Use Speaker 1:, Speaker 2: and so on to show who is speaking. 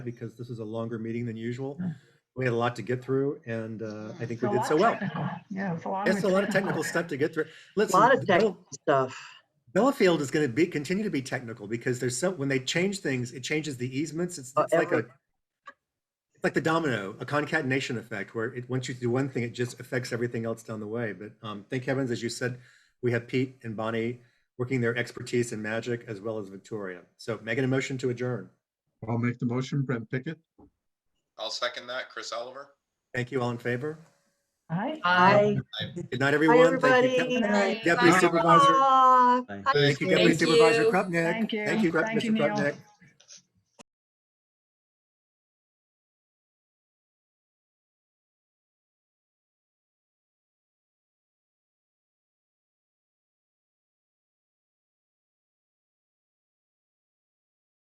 Speaker 1: because this is a longer meeting than usual. We had a lot to get through and uh, I think
Speaker 2: It's a
Speaker 1: we did
Speaker 2: lot
Speaker 1: so well.
Speaker 2: technical. Yeah, it's a lot.
Speaker 1: It's a lot of technical stuff to get through. Listen,
Speaker 3: lot of
Speaker 1: Bella-
Speaker 3: technical stuff.
Speaker 1: Bellafield is going to be, continue to be technical because there's so, when they change things, it changes the easements. It's
Speaker 3: Oh,
Speaker 1: it's like a,
Speaker 3: every-
Speaker 1: it's like the domino, a concatenation effect where it, once you do one thing, it just affects everything else down the way. But um, thank heavens, as you said, we have Pete and Bonnie working their expertise in magic as well as Victoria. So making a motion to adjourn.
Speaker 4: I'll make the motion, Brent Pickett.
Speaker 5: I'll second that. Chris Oliver.
Speaker 1: Thank you all in favor.
Speaker 2: Hi.
Speaker 3: Hi,
Speaker 1: Good night,
Speaker 3: hi,
Speaker 1: everyone. Thank you, Cap-
Speaker 3: everybody.
Speaker 6: Night.
Speaker 1: Deputy
Speaker 4: Bye.
Speaker 1: Supervisor.
Speaker 3: Ah,
Speaker 1: Thank you,
Speaker 5: Thank
Speaker 1: Deputy
Speaker 6: you.
Speaker 1: Supervisor Krupnik.
Speaker 2: Thank you.
Speaker 1: Thank you, Gre-
Speaker 2: Thank you,
Speaker 1: Mr.
Speaker 2: Neil.
Speaker 1: Krupnik.